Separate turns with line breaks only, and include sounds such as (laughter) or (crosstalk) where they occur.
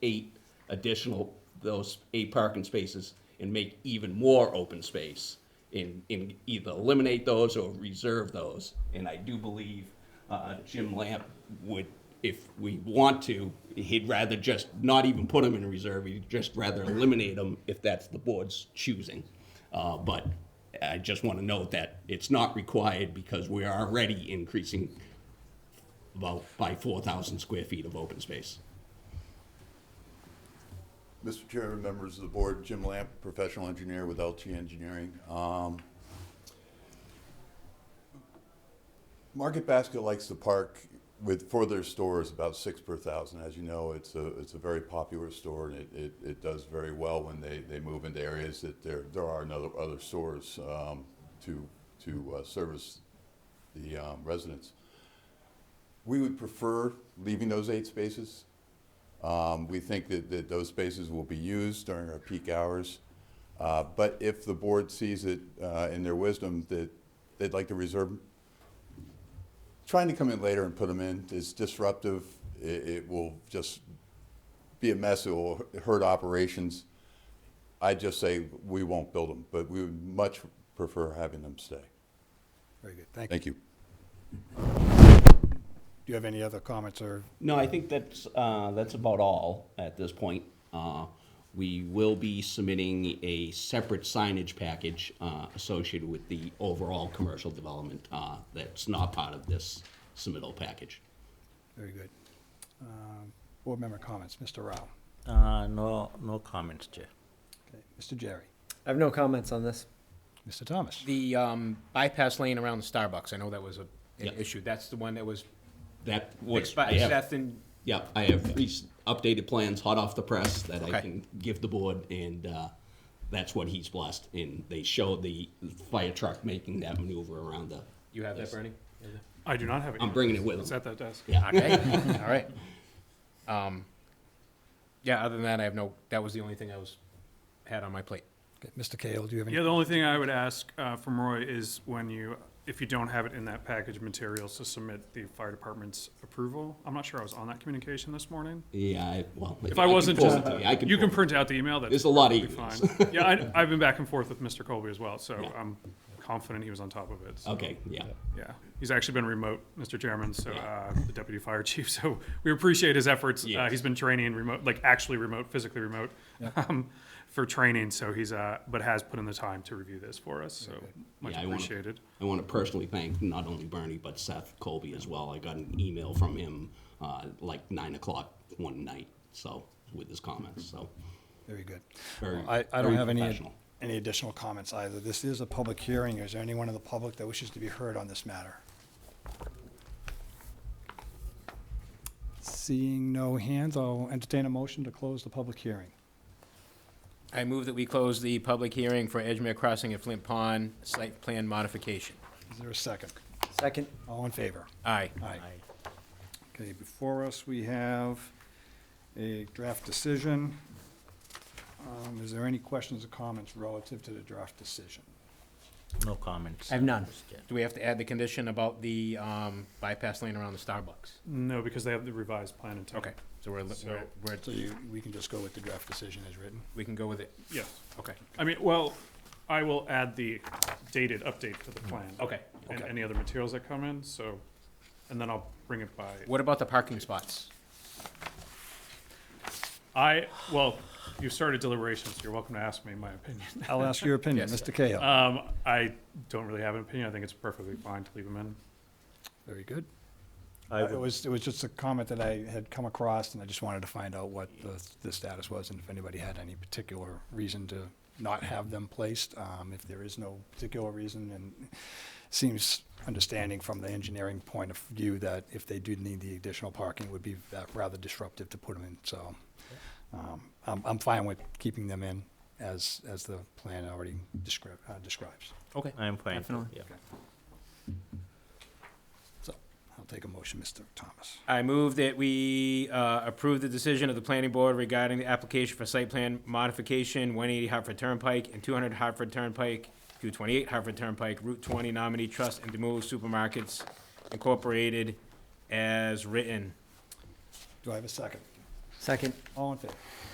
eight additional, those eight parking spaces and make even more open space in, in either eliminate those or reserve those. And I do believe uh, Jim Lamp would, if we want to, he'd rather just not even put them in reserve, he'd just rather eliminate them if that's the board's choosing. Uh, But I just want to note that it's not required because we are already increasing about by 4,000 square feet of open space.
Mr. Chairman, members of the board, Jim Lamp, professional engineer with LT Engineering. Um, Market Basket likes to park with, for their stores, about six per thousand. As you know, it's a, it's a very popular store and it, it, it does very well when they, they move into areas that there, there are no other stores um, to, to uh, service the um, residents. We would prefer leaving those eight spaces. Um, We think that, that those spaces will be used during our peak hours. Uh, But if the board sees it uh, in their wisdom that they'd like to reserve, 'em, trying to come in later and put them in is disruptive. It, it will just be a mess. It will hurt operations. I'd just say we won't build them, but we would much prefer having them stay.
Very good, thank you.
Thank you.
Do you have any other comments or,
No, I think that's, uh, that's about all at this point. Uh, We will be submitting a separate signage package uh, associated with the overall commercial development uh, that's not part of this submittal package.
very good. Um, Board member comments, Mr. Rao,
Uh, no, no comments, Chair.
Okay. Mr. Jerry,
I have no comments on this.
Mr. Thomas.
The um, bypass lane around the Starbucks, I know that was a, an
Yep.
issue. That's the one that was
That was,
fixed
I
by,
have-
that's in,
yeah, I have three s- updated plans hot off the press that I
Okay.
can give the board, and uh, that's what he's blessed. And they show the fire truck making that maneuver around the,
you have that,
Yes.
Bernie?
I do not have it.
I'm bringing it with
It's
him.
at that desk.
Yeah.
Okay, all right. Um, Yeah, other than that, I have no, that was the only thing I was, had on my plate.
Okay, Mr. Kale, do you have any?
(laughs) Yeah, the only thing I would ask uh, from Roy is when you, if you don't have it in that package materials, to submit the fire department's approval. I'm not sure I was on that communication this morning.
Yeah, I- well.
If I wasn't,
can
just,
forward it to you. I
you can
forward it.
print out the email, that's
There's a lot of
perfectly
emails.
fine. Yeah,
(laughs)
I, I've been back and forth with Mr. Colby as well, so
Yeah.
I'm confident he was on top of it. so,
Okay, yeah.
Yeah, he's actually been remote, Mr. Chairman, so, uh, the deputy fire (laughs) chief, so we appreciate his efforts. Uh,
Yes.
he's been training remote, like actually remote, physically remote, (laughs) um, for training, so he's, uh, but has put in the time to review this for us, so much
Yeah, I wanna-
appreciated.
I want to personally thank not only Bernie, but Seth Colby as well. I got an email from him uh, like nine o'clock one night, so, with his comments, so.
Very good.
Very-
Well, I, I don't
very
have any,
professional.
any additional comments either. This is a public hearing. Is there anyone in the public that wishes to be heard on this matter? Seeing no hands, I'll entertain a motion to close the public hearing.
I move that we close the public hearing for Edgemere Crossing at Flint Pond site plan modification.
Is there a second?
Second,
All in favor?
Aye.
Aye. Okay, before us, we have a draft decision. Um, Is there any questions or comments relative to the draft decision?
No comments.
I have none.
Mr. Chair.
Do we have to add the condition about the um, bypass lane around the Starbucks?
No, because they have the revised plan in time.
Okay, so we're, we're, we're-
So you, we can just go with the draft decision as written?
we can go with it,
Yes,
okay.
I mean, well, I will add the dated update to the
Mm.
plan.
Okay.
And
Okay.
any other materials that come in, so, and then I'll bring it by.
What about the parking spots?
I, well, you started deliberations, you're welcome to ask me
(laughs)
my opinion.
I'll ask your opinion,
Yes.
Mr. Cahill.
Um, I don't really have an opinion. I think it's perfectly fine to leave them in.
Very good.
I
Uh, It
would,
was, it was just a comment that I had come across, and I just wanted to find out what the, the status was, and if anybody had any particular reason to not have them placed. Um, if there is no particular reason, and seems understanding from the engineering point of view that if they do need the additional parking, it would be va- rather disruptive to put them in, so. um, I'm, I'm fine with keeping them in as, as the plan already describes, uh, describes.
Okay.
I'm fine.
Definitely.
Yeah.
So, I'll take a motion, Mr. Thomas.
I move that we uh, approve the decision of the planning board regarding the application for site plan modification, 180 Hartford Turnpike and 200 Hartford Turnpike, 228 Hartford Turnpike, Route 20 Nominee Trust and Demul Supermarkets Incorporated as written.
Do I have a second?
Second.
All in favor?